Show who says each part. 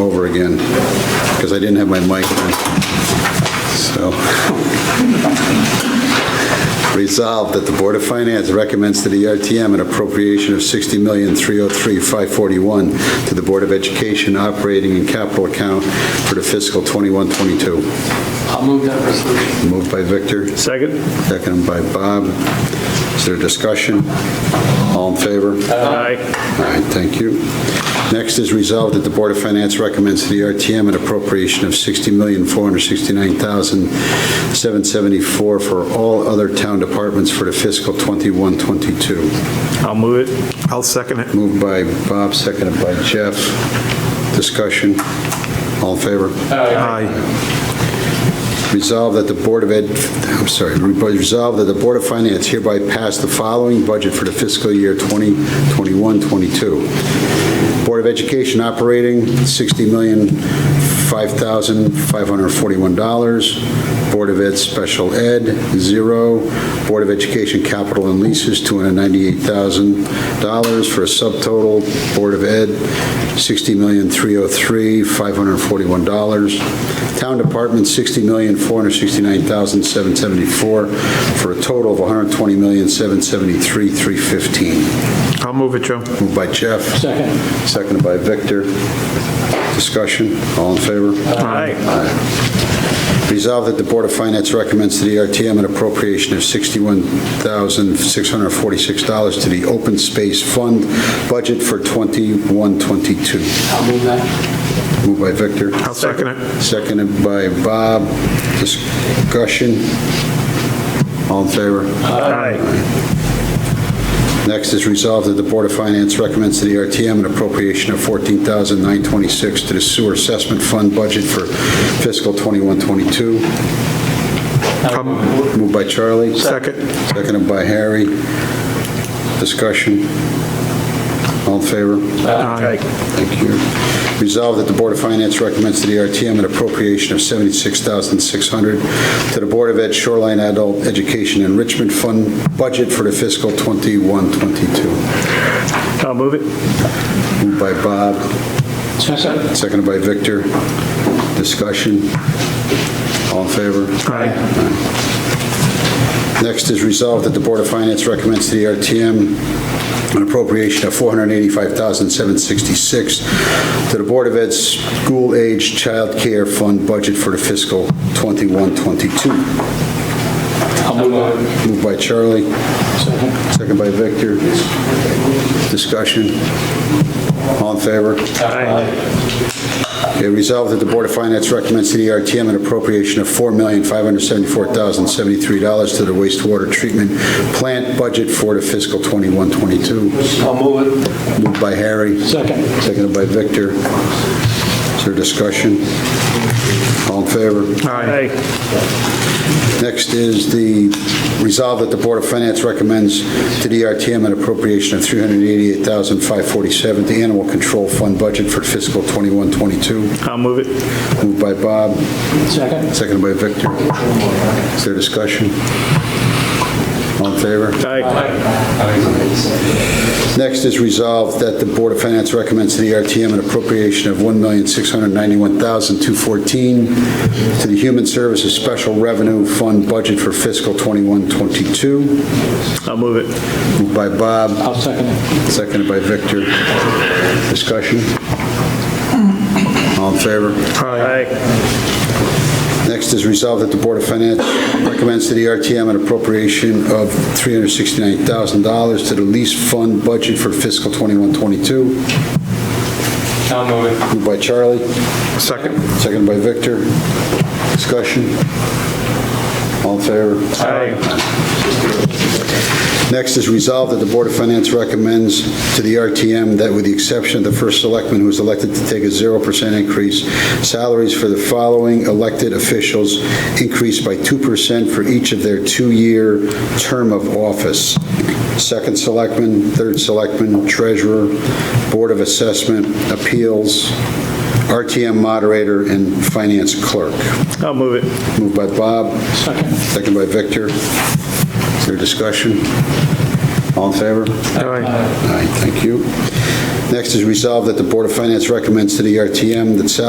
Speaker 1: over again, because I didn't have my mic on. So, resolved that the Board of Finance recommends to the RTM an appropriation of $60,303,541 to the Board of Education operating and capital account for the fiscal 21-22.
Speaker 2: I'll move that resolution.
Speaker 1: Moved by Victor,
Speaker 3: Second?
Speaker 1: seconded by Bob. Is there discussion? All in favor?
Speaker 2: Uh,
Speaker 3: Aye.
Speaker 1: All right, thank you. Next is resolved that the Board of Finance recommends to the RTM an appropriation of $60,469,774 for all other town departments for the fiscal 21-22.
Speaker 3: I'll move it. I'll second it.
Speaker 1: Moved by Bob, seconded by Jeff. Discussion. All in favor?
Speaker 3: Aye.
Speaker 1: Resolved that the Board of Ed, I'm sorry, resolved that the Board of Finance hereby pass the following budget for the fiscal year 2021-22. Board of Education operating, $60,005,541. Board of Ed Special Ed, zero. Board of Education capital and leases, $298,000 for a subtotal, Board of Ed, $60,303,541. Town Department, $60,469,774, for a total of $120,773,315.
Speaker 3: I'll move it, Joe.
Speaker 1: Moved by Jeff.
Speaker 2: Second.
Speaker 1: Seconded by Victor. Discussion, all in favor?
Speaker 3: Aye.
Speaker 1: Resolved that the Board of Finance recommends to the E RTM an appropriation of $61,646 to the Open Space Fund budget for 2122.
Speaker 2: I'll move that.
Speaker 1: Moved by Victor.
Speaker 3: I'll second it.
Speaker 1: Seconded by Bob. Discussion. All in favor?
Speaker 3: Aye.
Speaker 1: Next is resolved that the Board of Finance recommends to the RTM an appropriation of $14,926 to the Sewer Assessment Fund budget for fiscal 2122.
Speaker 2: Um,
Speaker 1: Moved by Charlie.
Speaker 3: Second.
Speaker 1: Seconded by Harry. Discussion. All in favor?
Speaker 3: Aye.
Speaker 1: Thank you. Resolved that the Board of Finance recommends to the RTM an appropriation of $76,600 to the Board of Ed Shoreline Adult Education Enrichment Fund budget for the fiscal 21-22.
Speaker 3: I'll move it.
Speaker 1: Moved by Bob,
Speaker 2: Second.
Speaker 1: seconded by Victor. Discussion. All in favor?
Speaker 3: Aye.
Speaker 1: Next is resolved that the Board of Finance recommends to the RTM an appropriation of $485,766 to the Board of Ed's School Age Child Care Fund budget for the fiscal 21-22.
Speaker 2: I'll move it.
Speaker 1: Moved by Charlie,
Speaker 2: Second.
Speaker 1: second by Victor. Discussion. All in favor?
Speaker 3: Aye.
Speaker 1: It resolved that the Board of Finance recommends to the RTM an appropriation of $4,574,073 to the wastewater treatment plant budget for the fiscal 21-22.
Speaker 2: I'll move it.
Speaker 1: Moved by Harry.
Speaker 2: Second.
Speaker 1: Seconded by Victor. Is there discussion? All in favor?
Speaker 3: Aye.
Speaker 1: Next is the resolve that the Board of Finance recommends to the RTM an appropriation of $388,547 to Animal Control Fund budget for fiscal 21-22.
Speaker 3: I'll move it.
Speaker 1: Moved by Bob.
Speaker 2: Second.
Speaker 1: Seconded by Victor. Is there discussion? All in favor?
Speaker 3: Aye.
Speaker 1: Next is resolved that the Board of Finance recommends to the RTM an appropriation of $1,691,214 to the Human Services Special Revenue Fund budget for fiscal 21-22.
Speaker 3: I'll move it.
Speaker 1: Moved by Bob,
Speaker 2: I'll second it.
Speaker 1: seconded by Victor. Discussion? All in favor?
Speaker 3: Aye.
Speaker 1: Next is resolved that the Board of Finance recommends to the RTM an appropriation of $369,000 to the lease fund budget for fiscal 21-22.
Speaker 2: I'll move it.
Speaker 1: Moved by Charlie,
Speaker 3: Second.
Speaker 1: seconded by Victor. Discussion? All in favor?
Speaker 3: Aye.
Speaker 1: Next is resolved that the Board of Finance recommends to the RTM that with the exception of the first selectman who is elected to take a 0% increase, salaries for the following elected officials increase by 2% for each of their two-year term of office. Second selectman, third selectman, treasurer, Board of Assessment, Appeals, RTM moderator, and finance clerk.
Speaker 3: I'll move it.
Speaker 1: Moved by Bob,
Speaker 2: Second.
Speaker 1: Second by Victor. Is there discussion? All in favor?
Speaker 3: Aye.
Speaker 1: Aye, thank you. Next is resolved that the Board of Finance recommends to the RTM that salaries